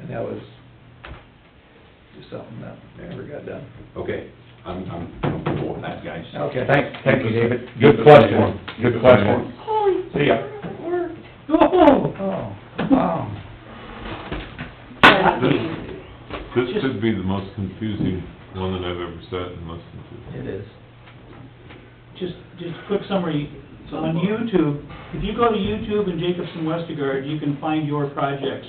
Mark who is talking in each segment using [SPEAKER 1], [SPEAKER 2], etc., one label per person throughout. [SPEAKER 1] And that was just something that never got done.
[SPEAKER 2] Okay, I'm, I'm comfortable with that, guys.
[SPEAKER 1] Okay.
[SPEAKER 3] Thank, thank you, David. Good question, good question.
[SPEAKER 4] Holy.
[SPEAKER 3] See ya.
[SPEAKER 4] It worked.
[SPEAKER 1] Oh, oh, wow.
[SPEAKER 5] This could be the most confusing one that I've ever sat and listened to.
[SPEAKER 1] It is.
[SPEAKER 6] just, just a quick summary, so on YouTube, if you go to YouTube and Jacobson Westergaard, you can find your projects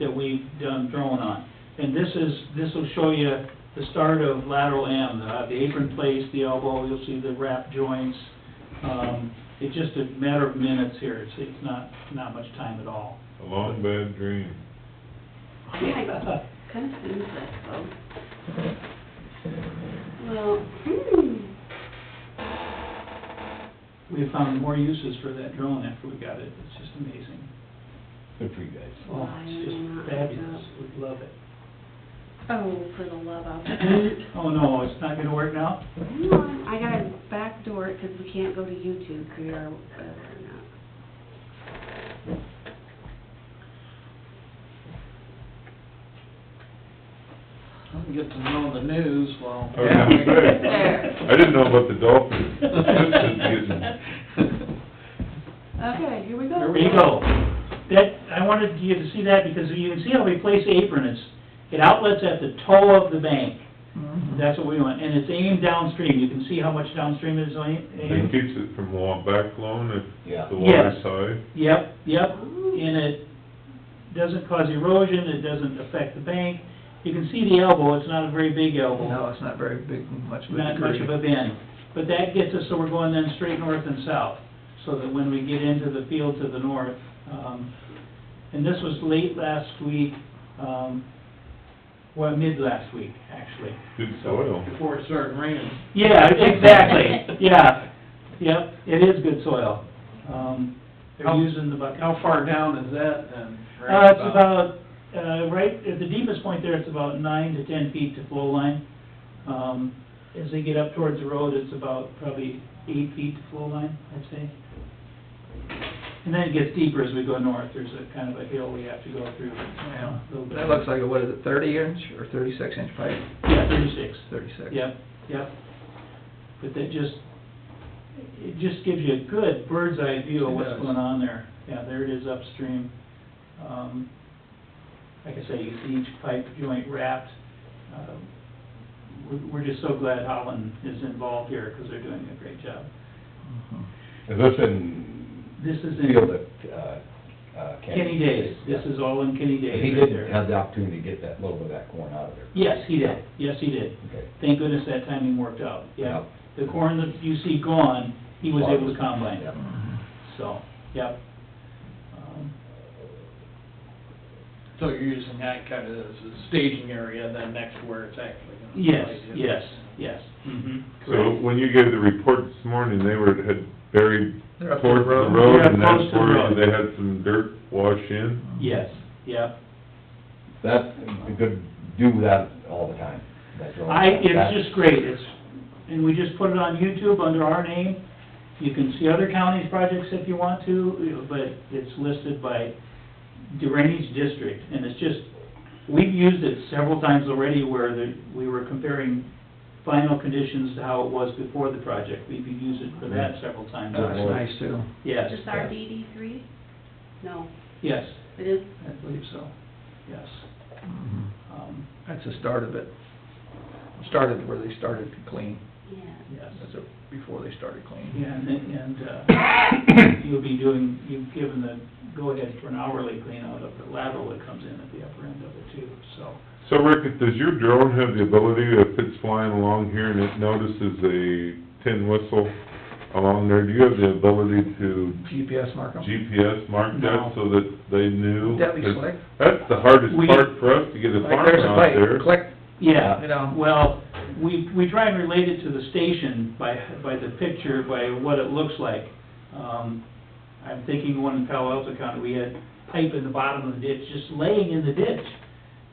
[SPEAKER 6] that we've done drone on. And this is, this will show you the start of lateral M, uh, the apron place, the elbow, you'll see the wrap joints. Um, it's just a matter of minutes here, it's, it's not, not much time at all.
[SPEAKER 5] A long bad dream.
[SPEAKER 4] Yeah, I confused that though. Well, hmm,
[SPEAKER 6] We found more uses for that drone after we got it, it's just amazing.
[SPEAKER 2] Good for you guys.
[SPEAKER 6] Oh, it's just fabulous, we love it.
[SPEAKER 4] oh, for the love of it.
[SPEAKER 6] Oh, no, it's not gonna work now?
[SPEAKER 4] Hang on, I gotta backdoor it because we can't go to YouTube through our, uh,
[SPEAKER 7] I'm getting to know the news while.
[SPEAKER 2] Oh,
[SPEAKER 5] I was gonna say, I didn't know about the dolphins. This is getting,
[SPEAKER 4] okay, here we go.
[SPEAKER 6] There we go. That, I wanted you to see that because you can see how we place the apron, it's, it outlets at the toe of the bank. That's what we want, and it's aimed downstream, you can see how much downstream is aim-
[SPEAKER 5] it
[SPEAKER 6] aimed.
[SPEAKER 5] keeps it from wa- back flowing
[SPEAKER 2] Yeah.
[SPEAKER 5] at the water
[SPEAKER 6] Yes.
[SPEAKER 5] side.
[SPEAKER 6] Yep, yep,
[SPEAKER 4] Oh.
[SPEAKER 6] and it doesn't cause erosion, it doesn't affect the bank. You can see the elbow, it's not a very big elbow.
[SPEAKER 1] No, it's not very big, much of a
[SPEAKER 6] not much of
[SPEAKER 1] degree.
[SPEAKER 6] a bend. But that gets us, so we're going then straight north and south, so that when we get into the field to the north, um, and this was late last week, um, well, mid last week, actually.
[SPEAKER 5] Good soil.
[SPEAKER 7] Before it started raining.
[SPEAKER 6] Yeah, exactly, yeah, yep, it is good soil. Um, they're
[SPEAKER 7] How-
[SPEAKER 6] using the bucket.
[SPEAKER 7] How far down is that then?
[SPEAKER 6] Uh, it's about, uh, right, at the deepest point there, it's about nine to ten feet to flow line. Um, as they get up towards the road, it's about probably eight feet to flow line, I'd say. And then it gets deeper as we go north, there's a kind of a hill we have to go through.
[SPEAKER 1] Yeah.
[SPEAKER 6] a little bit.
[SPEAKER 1] That looks like, a what is it, thirty inch or thirty-six inch pipe?
[SPEAKER 6] Yeah, thirty-six.
[SPEAKER 1] Thirty-six.
[SPEAKER 6] Yep, yep. But that just, it just gives you a good bird's eye view of
[SPEAKER 1] It
[SPEAKER 6] what's
[SPEAKER 1] does.
[SPEAKER 6] going on there. Yeah, there it is upstream. Um, like I say, you see each pipe joint wrapped. Um, We're, we're just so glad Holland is involved here, because they're doing a great job.
[SPEAKER 1] Mhm.
[SPEAKER 2] Is this in?
[SPEAKER 6] This is
[SPEAKER 2] Field
[SPEAKER 6] in
[SPEAKER 2] at, uh, uh,
[SPEAKER 6] Kenny Days, this
[SPEAKER 2] Yeah.
[SPEAKER 6] is all in Kenny Days
[SPEAKER 2] He
[SPEAKER 6] right
[SPEAKER 2] did
[SPEAKER 6] there.
[SPEAKER 2] have the opportunity to get that, little bit of that corn out of there.
[SPEAKER 6] Yes, he did, yes, he did.
[SPEAKER 2] Okay.
[SPEAKER 6] Thank goodness that timing worked out, yeah. The corn that you see gone, he was able to combine.
[SPEAKER 2] Yeah.
[SPEAKER 6] So, yep. Um,
[SPEAKER 7] So you're using that kind of as a staging area then next to where it's actually gonna.
[SPEAKER 6] Yes,
[SPEAKER 7] play, yeah.
[SPEAKER 6] yes, yes, mhm,
[SPEAKER 5] So
[SPEAKER 6] correct.
[SPEAKER 5] when you gave the report this morning, they were, had buried
[SPEAKER 1] They're up to the
[SPEAKER 5] towards the
[SPEAKER 1] road.
[SPEAKER 5] road
[SPEAKER 6] Yeah,
[SPEAKER 5] and
[SPEAKER 6] close
[SPEAKER 5] that's
[SPEAKER 6] to the
[SPEAKER 5] where
[SPEAKER 6] road.
[SPEAKER 5] they had some dirt wash in.
[SPEAKER 6] Yes, yep.
[SPEAKER 2] That, you could do that all the time. That's all.
[SPEAKER 6] I,
[SPEAKER 2] That's-
[SPEAKER 6] it's just great, it's, and we just put it on YouTube under our name. You can see other counties' projects if you want to, but it's listed by drainage district, and it's just, we've used it several times already where the, we were comparing final conditions to how it was before the project. We've used it for that several times.
[SPEAKER 1] That was nice too,
[SPEAKER 6] Yes,
[SPEAKER 4] Just our DD three? No,
[SPEAKER 6] yes,
[SPEAKER 4] it is,
[SPEAKER 6] I believe so, yes.
[SPEAKER 1] Mhm.
[SPEAKER 6] Um,
[SPEAKER 1] that's the start of it. Started where they started to clean,
[SPEAKER 4] yeah.
[SPEAKER 6] yes.
[SPEAKER 1] that's it, before they started cleaning.
[SPEAKER 6] Yeah, and, and, uh, you'll be doing, you've given the go-ahead for an hourly cleanout of the lateral that comes in at the upper end of it too, so.
[SPEAKER 5] So Rick, does your drone have the ability, if it's flying along here and it notices a tin whistle along there, do you have the ability to
[SPEAKER 1] GPS mark 'em.
[SPEAKER 5] GPS mark
[SPEAKER 6] No.
[SPEAKER 5] that so that they knew?
[SPEAKER 1] Would that be
[SPEAKER 5] 'Cause
[SPEAKER 1] slick?
[SPEAKER 5] That's the hardest
[SPEAKER 6] We-
[SPEAKER 5] part for us, to get a
[SPEAKER 1] Like,
[SPEAKER 5] farmer
[SPEAKER 1] there's a
[SPEAKER 5] out there.
[SPEAKER 1] pipe, click,
[SPEAKER 6] Yeah,
[SPEAKER 1] you know.
[SPEAKER 6] Well, we, we try and relate it to the station by, by the picture, by what it looks like. Um, I'm thinking one in Palo Alto County, we had pipe in the bottom of the ditch, just laying in the ditch.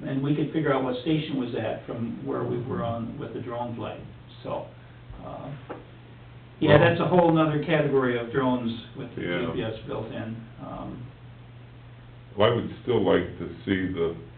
[SPEAKER 6] And we could figure out what station was at from where we were on with the drone flight, so. um, Yeah, that's a whole nother category of drones with the
[SPEAKER 5] Yeah.
[SPEAKER 6] GPS built in. Um,
[SPEAKER 5] Well, I would still like to see the